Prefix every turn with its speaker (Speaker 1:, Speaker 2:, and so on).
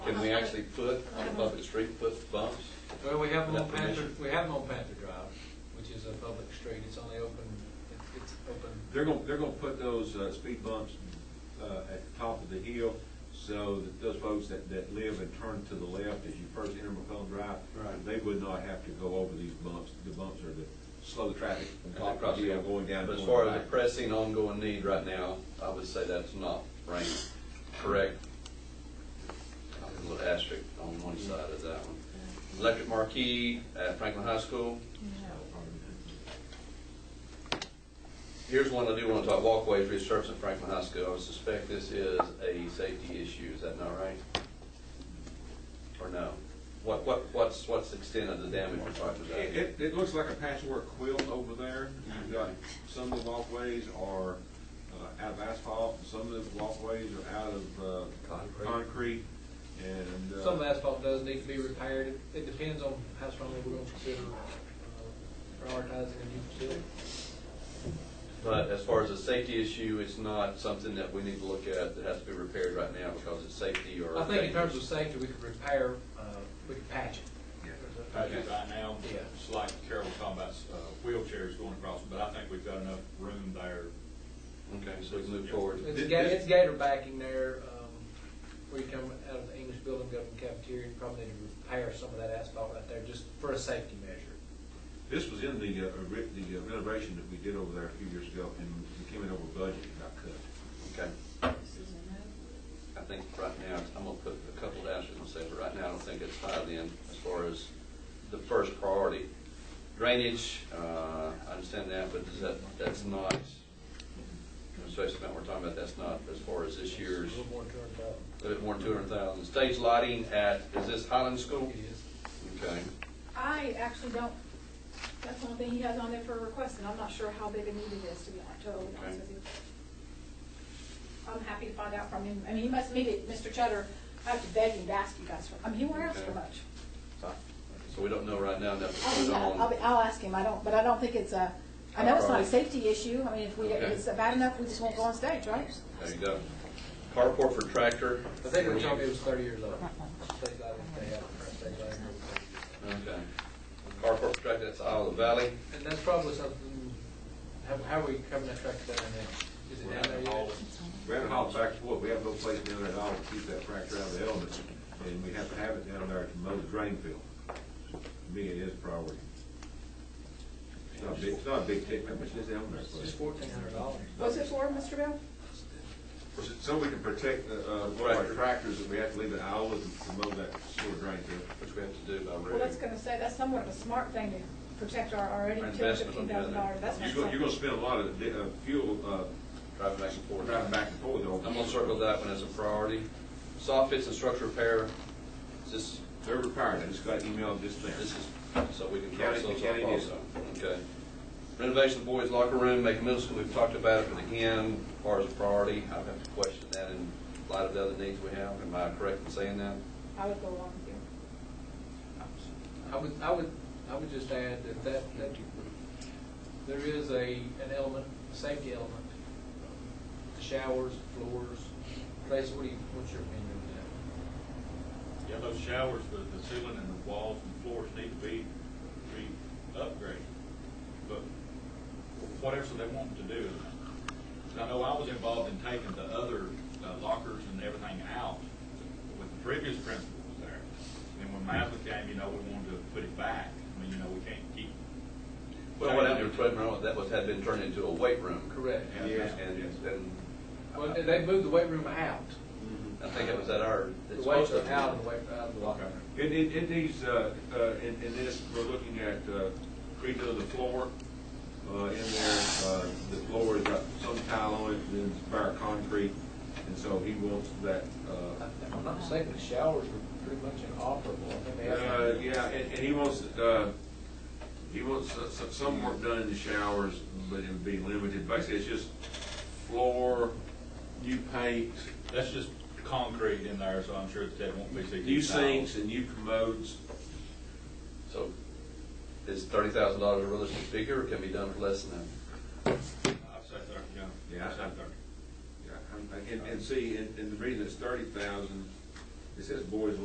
Speaker 1: Can we actually put on a public street, put bumps?
Speaker 2: Well, we have them on
Speaker 1: Without
Speaker 2: Panther,
Speaker 1: permission.
Speaker 2: we have them on Panther Drive, which is a public street, it's only open, it's- it's open.
Speaker 3: They're gonna, they're gonna put those uh, speed bumps uh, at the top of the hill so that those folks that, that live and turn to the left as you first enter McCollum Drive,
Speaker 2: Right.
Speaker 3: they would not have to go over these bumps. The bumps are to slow the traffic from
Speaker 1: And
Speaker 3: top of the
Speaker 1: across
Speaker 3: hill
Speaker 1: the-
Speaker 3: going down.
Speaker 1: But as
Speaker 3: going
Speaker 1: far as the
Speaker 3: back.
Speaker 1: pressing ongoing need right now, I would say that's not ranked correct. A little asterisk on one side of that one. Electric marquee at Franklin High School. Here's one I do want to talk, walkways resurfaced at Franklin High School. I would suspect this is a safety issue, is that not right? Or no? What, what, what's, what's the extent of the damage we're talking about?
Speaker 3: It, it- it looks like a patchwork quilt over there. You've got, some of the walkways are uh, out of asphalt, and some of the walkways are out of uh,
Speaker 1: Concrete.
Speaker 3: concrete, and. uh,
Speaker 2: Some asphalt does need to be repaired, It- it depends on how strongly we're gonna consider uh, prioritizing a new facility.
Speaker 1: But as far as the safety issue, it's not something that we need to look at that has to be repaired right now because it's safety or.
Speaker 2: I think in terms of safety, we could repair, uh, we could patch it.
Speaker 4: I think right now,
Speaker 2: Yeah.
Speaker 4: it's like Carol was talking about uh, wheelchairs going across, but I think we've got enough room there.
Speaker 1: Okay, so we can move forward.
Speaker 2: It's ga- it's gator backing there, um, where you come out of the English building, go to the cafeteria, you probably need to repair some of that asphalt right there, just for a safety measure.
Speaker 3: This was in the, uh, re- the uh, renovation that we did over there a few years ago, and we came in over budget and got cut.
Speaker 1: Okay. I think right now, I'm gonna put a couple of asterisks and say, but right now, I don't think it's tied in as far as the first priority. Drainage, uh, I understand that, but is that, that's not, especially amount we're talking about, that's not as far as this year's,
Speaker 2: A little more turned up.
Speaker 1: a little bit more than two hundred thousand. Stage lighting at, is this Highland School?
Speaker 2: It is.
Speaker 1: Okay.
Speaker 5: I actually don't, that's the only thing he has on there for a request, and I'm not sure how big a need it is, to be honest, totally honest with you. I'm happy to find out from him, I mean, he must meet it, Mr. Cheddar, I have to beg him to ask you guys for, I mean, he won't ask for much.
Speaker 1: So we don't know right now, that's
Speaker 5: I'll,
Speaker 1: put
Speaker 5: be-
Speaker 1: it
Speaker 5: Oh, I'll,
Speaker 1: on.
Speaker 5: be- I'll ask him, I don't, but I don't think it's a, I know it's not a safety issue, I mean, if we, if it's bad enough, we just won't go on stage, right?
Speaker 1: There you go. Carport for tractor.
Speaker 2: I think the company was thirty years old. State law, they have a current state law.
Speaker 1: Okay. Carport for tractor, that's Isle of Valley.
Speaker 2: And that's probably something, how, how are we covering that track down there? Is it down there yet?
Speaker 3: We had to haul it back and forth, we have no place down there at all to keep that fracture out of the elements, and we have to have it down there to mow the drain field. To me, it is a priority. It's not a big, it's not a big ticket, how much is down there?
Speaker 2: It's just fourteen hundred dollars.
Speaker 5: What's it for, Mr. Bill?
Speaker 3: So- So we can protect the, uh, one of our tractors that we have to leave at Iowa to to mow that sewer drain field.
Speaker 1: Which we have to do by
Speaker 5: Well, that's
Speaker 1: reading.
Speaker 5: gonna say, that's somewhat of a smart thing to protect our already two hundred
Speaker 1: Investment on the
Speaker 5: fifteen
Speaker 1: other.
Speaker 5: thousand dollars, that's
Speaker 3: You're
Speaker 5: not
Speaker 3: gonna,
Speaker 5: something.
Speaker 3: you're gonna spend a lot of, di- uh, fuel, uh,
Speaker 1: Driving back and forth.
Speaker 3: driving back and forth over.
Speaker 1: I'm gonna circle that one as a priority. Soft fits and structure repair, is this,
Speaker 3: They're retired, I just got email just now.
Speaker 1: this is, so we can cross those
Speaker 3: County-
Speaker 1: off
Speaker 3: county did.
Speaker 1: also. Okay. Renovation of boys locker room, make middle school, we've talked about it, but again, as far as a priority, I have to question that in light of the other needs we have. Am I correct in saying that?
Speaker 5: I would go along with you.
Speaker 2: I would, I would, I would just add that that, that there is a, an element, a safety element. The Showers, floors, Tracy, what do you, what's your opinion on that?
Speaker 4: Yeah, those showers, the, the ceiling and the walls and floors need to be, be upgraded. But whatever they want to do. I know I was involved in taking the other uh, lockers and everything out with the previous principal was there. And when Maslin came, you know, we wanted to put it back. I mean, you know, we can't keep.
Speaker 1: Well, what happened to Fred Merrill, that was, had been turned into a weight room.
Speaker 2: Correct.
Speaker 1: And,
Speaker 3: Yes.
Speaker 1: and, and
Speaker 2: Well, they moved the weight room out.
Speaker 1: I think it was at our.
Speaker 2: The
Speaker 1: it's
Speaker 2: weights
Speaker 1: supposed to be-
Speaker 2: are out of the weight, out of the locker room.
Speaker 3: It, it, it needs, uh, uh, in, in this, we're looking at, uh, redoing the floor, uh, in there, uh, the floor has got some tile on it, and then it's bare concrete, and so he wants that, uh,
Speaker 2: If I'm not mistaken, the showers were pretty much inoperable. I think they had-
Speaker 3: uh, yeah, and, and he wants, uh, he wants s- s- some work done in the showers, but it would be limited, basically, it's just floor, new paint,
Speaker 4: That's just concrete in there, so I'm sure that that won't be sixty
Speaker 3: new
Speaker 4: thousand.
Speaker 3: sinks and new commodes,
Speaker 1: So is thirty thousand dollars a realistic figure or can be done for less than that?
Speaker 4: I'd say thirty, yeah.
Speaker 3: Yeah.
Speaker 4: I'd say thirty.
Speaker 3: Yeah, and, and see, and, and the reason it's thirty thousand it says boys